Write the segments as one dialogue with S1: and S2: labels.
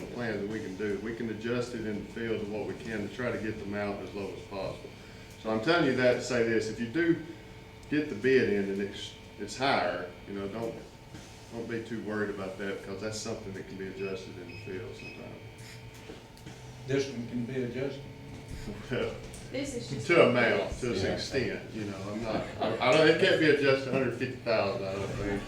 S1: plan that we can do. We can adjust it in the field of what we can to try to get them out as low as possible. So I'm telling you that to say this, if you do get the bid in and it's, it's higher, you know, don't, don't be too worried about that because that's something that can be adjusted in the field sometimes.
S2: This one can be adjusted.
S1: Well,
S3: This is just.
S1: To amount, to an
S2: Yeah.
S1: extent, you know, I'm not, I don't, it can't be adjusted hundred fifty thousand, I don't think,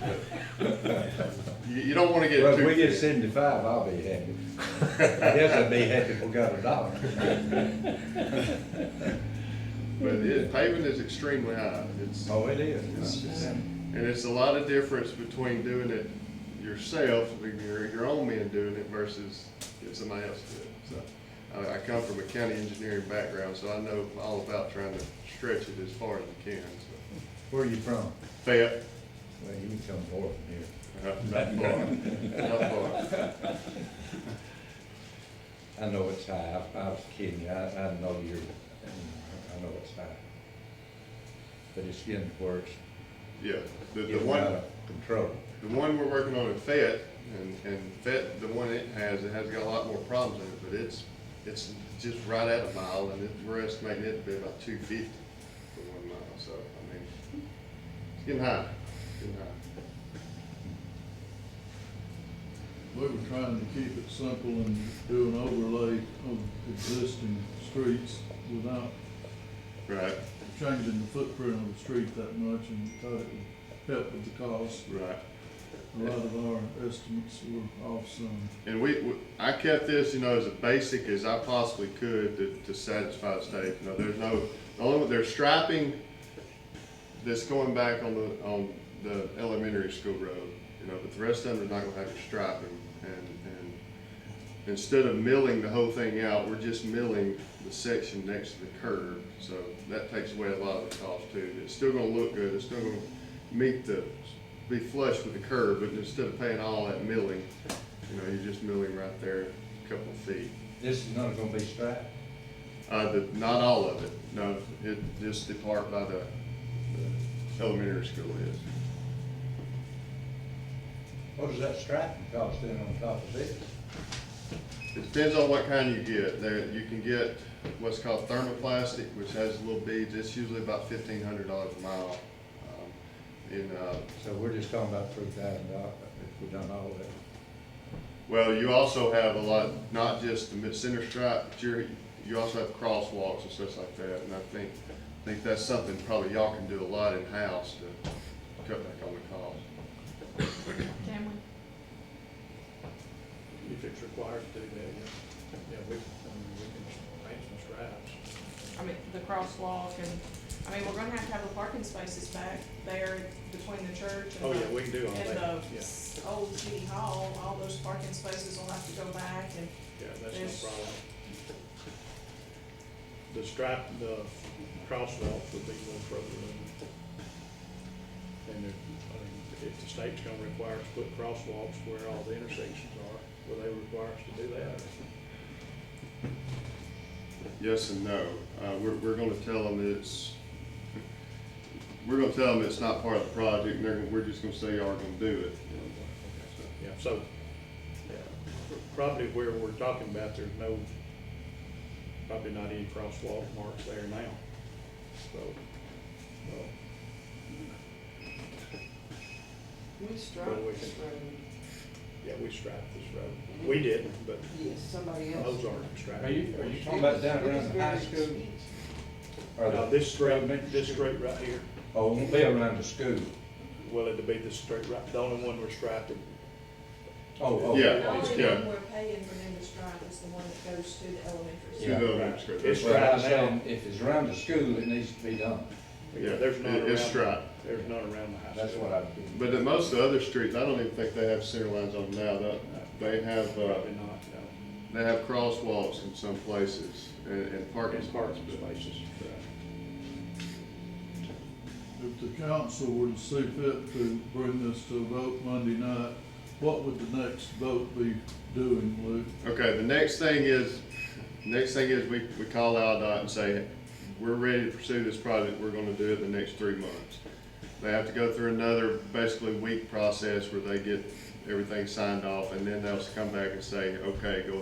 S1: but you, you don't wanna get
S4: Well, if we
S1: too.
S4: get seventy-five, I'll be happy. I guess I'd be happy if we got a dollar.
S1: But it, paving is extremely high, it's,
S4: Oh, it is. um,
S1: and it's a lot of difference between doing it yourself, with your, your own men doing it versus getting somebody else to do it, so. I, I come from a county engineering background, so I know all about trying to stretch it as far as you can, so.
S4: Where are you from?
S1: Fayette,
S4: Well, you can come north from here.
S1: uh, not far, not far.
S4: I know it's high. I, I was kidding you. I, I know you're, I know it's high. But it's getting worse.
S1: Yeah, the, the
S4: Getting
S1: one.
S4: out of Control.
S1: The one we're working on in Fayette, and, and Fayette, the one it has, it has got a lot more problems in it, but it's, it's just right at a mile, and it, we're estimating it to be about two fifty for one mile, so, I mean, it's getting high, it's getting high.
S5: We were trying to keep it simple and do an overlay of existing streets without
S1: Right,
S5: changing the footprint of the street that much and thought it would help with the cost.
S1: right.
S5: A lot of our estimates were off some.
S1: And we, we- I kept this, you know, as basic as I possibly could to, to satisfy the state. You know, there's no, the only, there's striping that's going back on the, on the elementary school road, you know, but the rest of them are not gonna have your striping. And, and instead of milling the whole thing out, we're just milling the section next to the curb. So that takes away a lot of the cost too. It's still gonna look good, it's still gonna meet the, be flush with the curb, but instead of paying all that milling, you know, you're just milling right there, a couple of feet.
S4: This is not gonna be straight.
S1: Uh, the, not all of it, no, it, just the part by the, the elementary school is.
S4: What does that striping cost then on top of this?
S1: It depends on what kind you get, there, you can get what's called thermoplastic, which has little beads, it's usually about fifteen hundred dollars a mile. Um, And, uh,
S4: So we're just talking about three thousand dollars if we done all that.
S1: well, you also have a lot, not just the mid-center stripe, but you're, you also have crosswalks and stuff like that, and I think, I think that's something probably y'all can do a lot in-house to cut back on the cost.
S3: Can we?
S6: If it's required to do that, yeah, yeah, we, I mean, we can paint some stripes.
S3: I mean, the crosswalk and, I mean, we're gonna have to have the parking spaces back there between the church and
S6: Oh, yeah,
S3: the,
S6: we can do all that,
S3: and
S6: yeah,
S3: the s- old city hall, all those parking spaces will have to go back and,
S6: yeah, that's
S3: there's-
S6: no problem. The stripe, the crosswalk would be one problem. And if, I mean, if the state's gonna require us to put crosswalks where all the intersections are, will they require us to do that?
S1: Yes and no. Uh, we're, we're gonna tell them it's, we're gonna tell them it's not part of the project, and they're, gonna- we're just gonna say y'all are gonna do it.
S6: Yeah, so, yeah, probably where we're talking about, there's no, probably not any crosswalk marks there now, so. well,
S7: We struck
S6: Well, we
S7: this
S6: can-
S7: road,
S6: Yeah, we striped this road. We didn't, but
S7: yes, somebody else.
S6: those aren't striped.
S2: Are you, are you
S7: It
S2: talking about
S7: was-
S2: down
S7: it was
S2: around the high
S7: very
S2: school?
S7: steep.
S4: Or
S6: Now,
S4: the,
S6: this straight, this straight right here,
S4: oh, it won't be around the school.
S6: well, it'd be the straight right, the only one we're striped,
S4: Oh, oh.
S1: Yeah.
S3: the only
S1: yeah.
S3: one we're paying for them to stripe is the one that goes to the elementary.
S1: To
S4: Yeah.
S3: school.
S1: the elementary school.
S6: It's
S4: Well,
S6: striped
S4: I know
S6: now.
S4: if it's around the school, it needs to be done.
S1: Yeah,
S6: yeah, there's none
S1: it-
S6: around.
S1: it's striped.
S6: There's none around the high school.
S4: That's what I do.
S1: But at most of the other streets, I don't even think they have center lines on them now. They- They have, uh,
S6: Probably not, no.
S1: they have crosswalks in some places and, and parking
S6: In
S1: spots.
S6: parking spaces, right.
S5: If the council were to see fit to bring this to a vote Monday night, what would the next vote be doing, Luke?
S1: Okay, the next thing is, next thing is we, we call dot and say, we're ready to pursue this project, we're gonna do it in the next three months. They have to go through another basically week process where they get everything signed off, and then they'll come back and say, okay, go